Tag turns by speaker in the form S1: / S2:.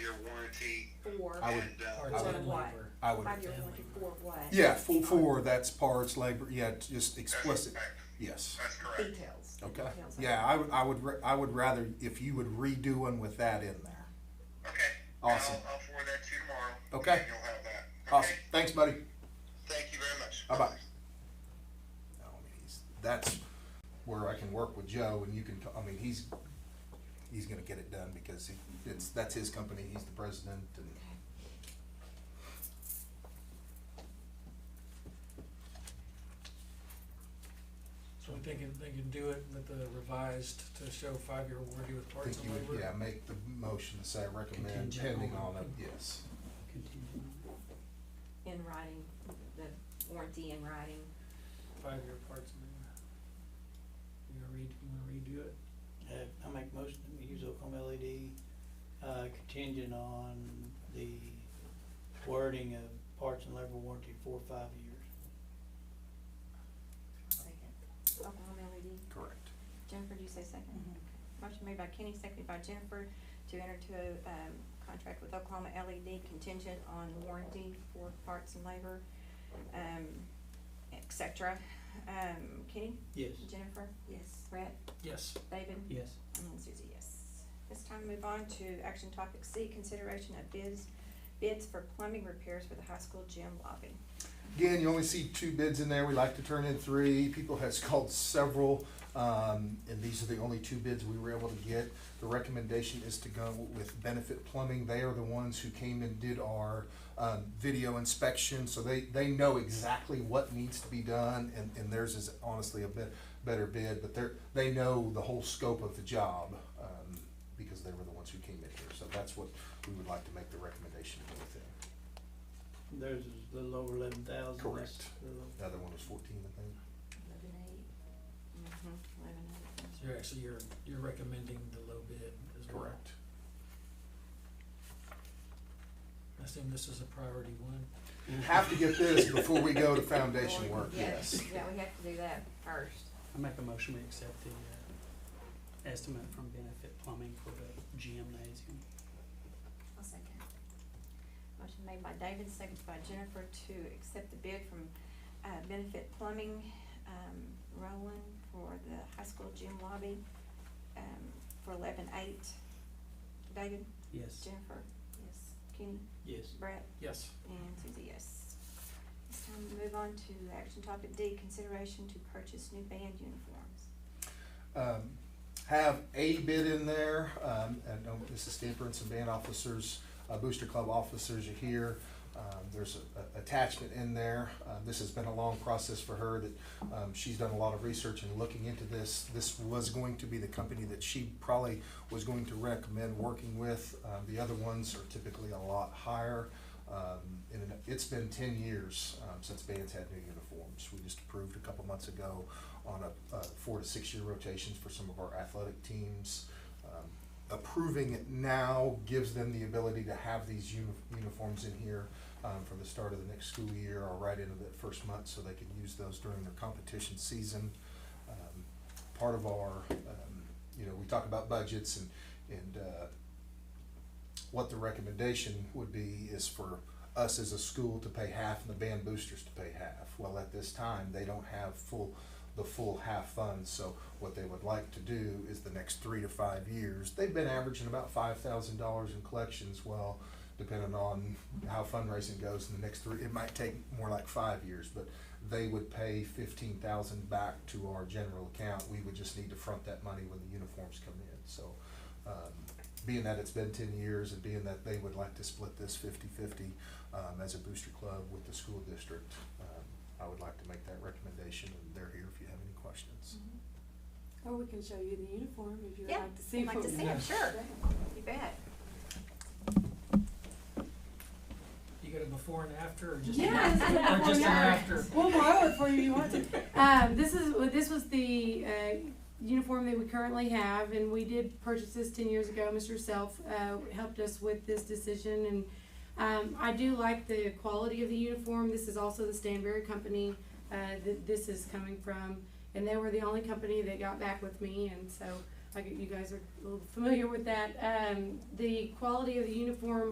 S1: year warranty
S2: for,
S3: I would-
S1: and, uh,
S2: Or
S3: I
S2: it's
S3: would-
S2: on what?
S3: I would,
S2: Five-year warranty for what? Uh,
S3: yeah, for, for that's parts, labor, yeah, just
S1: that's
S3: explicit,
S1: correct.
S3: yes.
S1: That's correct.
S2: Details.
S3: Okay,
S2: Details of
S3: yeah, I would, I would, ra- I would rather if you would redo one with that in there.
S1: Okay.
S3: Awesome.
S1: I'll, I'll forward that to you tomorrow.
S3: Okay.
S1: and You'll have that.
S3: Awesome,
S1: Okay?
S3: thanks, buddy.
S1: Thank you very much.
S3: Bye-bye. No, I mean, Oh, he's- That's where I can work with Joe and you can, t- I mean, he's, he's gonna get it done because he- it's, that's his company, he's the president and.
S4: So we think it- they can do it with the revised to show five-year warranty with
S3: I
S4: parts
S3: think
S4: and
S3: you would, yeah,
S4: labor.
S3: make the motion to say recommend
S5: Contingent
S3: pending
S5: on-
S3: on it, yes.
S5: Contingent on
S2: In writing, the warranty in writing.
S4: Five-year parts and labor. You gonna read, you wanna redo it?
S5: it. Uh, I make motion that we use Oklahoma LED, uh, contingent on the wording of parts and labor warranty for five years.
S2: Oklahoma LED.
S3: Correct.
S2: Jennifer, do you say second? Okay. Motion made by Kenny, seconded by Jennifer to enter to a, um, contract with Oklahoma LED contingent on warranty for parts and labor, um, et cetera. Um, Kenny?
S5: Yes.
S2: Jennifer? Yes. Brett?
S4: Yes.
S2: David?
S5: Yes.
S2: And Susie, yes. This time move on to action topic C, consideration of bids, bids for plumbing repairs for the high school gym lobby.
S3: Again, you only see two bids in there, we like to turn in three, people has called several, um, and these are the only two bids we were able to get. The recommendation is to go with Benefit Plumbing, they are the ones who came and did our, um, video inspection, so they, they know exactly what needs to be done, and, and theirs is honestly a bit, better bid, but they're, they know the whole scope of the job, um, because they were the ones who came in here, so that's what we would like to make the recommendation within.
S5: Theirs is a little over eleven thousand.
S3: Correct. The other one was fourteen, I think.
S2: Eleven eight. Mm-hmm, eleven
S4: So you're actually, you're, you're recommending the low bid as well. I assume this is a priority one.
S3: Have to get this before we go to foundation work,
S2: Yeah,
S3: yes.
S2: Yeah, we have to do that first.
S6: I make a motion we accept the uh, estimate from Benefit Plumbing for the gymnasium.
S2: I'll second. Motion made by David, seconded by Jennifer to accept the bid from, uh, Benefit Plumbing, um, Roland for the high school gym lobby, um, for eleven eight. David?
S6: Yes.
S2: Jennifer? Yes. Kenny?
S5: Yes.
S2: Brett?
S4: Yes.
S2: And Susie, yes. It's time to move on to action topic D, consideration to purchase new band uniforms.
S3: Um, Have a bid in there, um, and um, this is Stamper and some band officers, uh, Booster Club officers are here. Um, There's a- a attachment in there. Uh, This has been a long process for her that um, she's done a lot of research and looking into this. This was going to be the company that she probably was going to recommend working with. Uh, The other ones are typically a lot higher. Um, and it's been ten years, um, since bands had new uniforms. We just approved a couple months ago on a, uh, four to six year rotations for some of our athletic teams. Um, Approving it now gives them the ability to have these uni- uniforms in here, um, from the start of the next school year or right into that first month, so they can use those during their competition season. Um, Part of our, um, you know, we talk about budgets and, and, uh, what the recommendation would be is for us as a school to pay half and the band boosters to pay half. Well, at this time, they don't have full, the full half funds, so what they would like to do is the next three to five years, they've been averaging about five thousand dollars in collections, well, depending on how fundraising goes in the next three, it might take more like five years, but they would pay fifteen thousand back to our general account, we would just need to front that money when the uniforms come in, so, um, being that it's been ten years and being that they would like to split this 50-50 um, as a booster club with the school district, um, I would like to make that recommendation and they're here if you have any questions.
S7: Or we can show you the uniform if you'd
S2: Yeah,
S7: like to see.
S2: I'd like
S7: what
S2: to
S7: we
S2: see
S7: have.
S2: them, sure, you bet.
S4: You got a before and after or just?
S7: Yes,
S4: an-
S7: a
S4: Or
S7: before
S4: just an
S7: and
S4: after?
S7: We'll borrow it for you if you want to. Um, this is, well, this was the, uh, uniform that we currently have, and we did purchase this ten years ago. Mr. Self, uh, helped us with this decision, and, um, I do like the quality of the uniform. This is also the Stanberry company, uh, that this is coming from, and they were the only company that got back with me, and so I get, you guys are a little familiar with that. Um, the quality of the uniform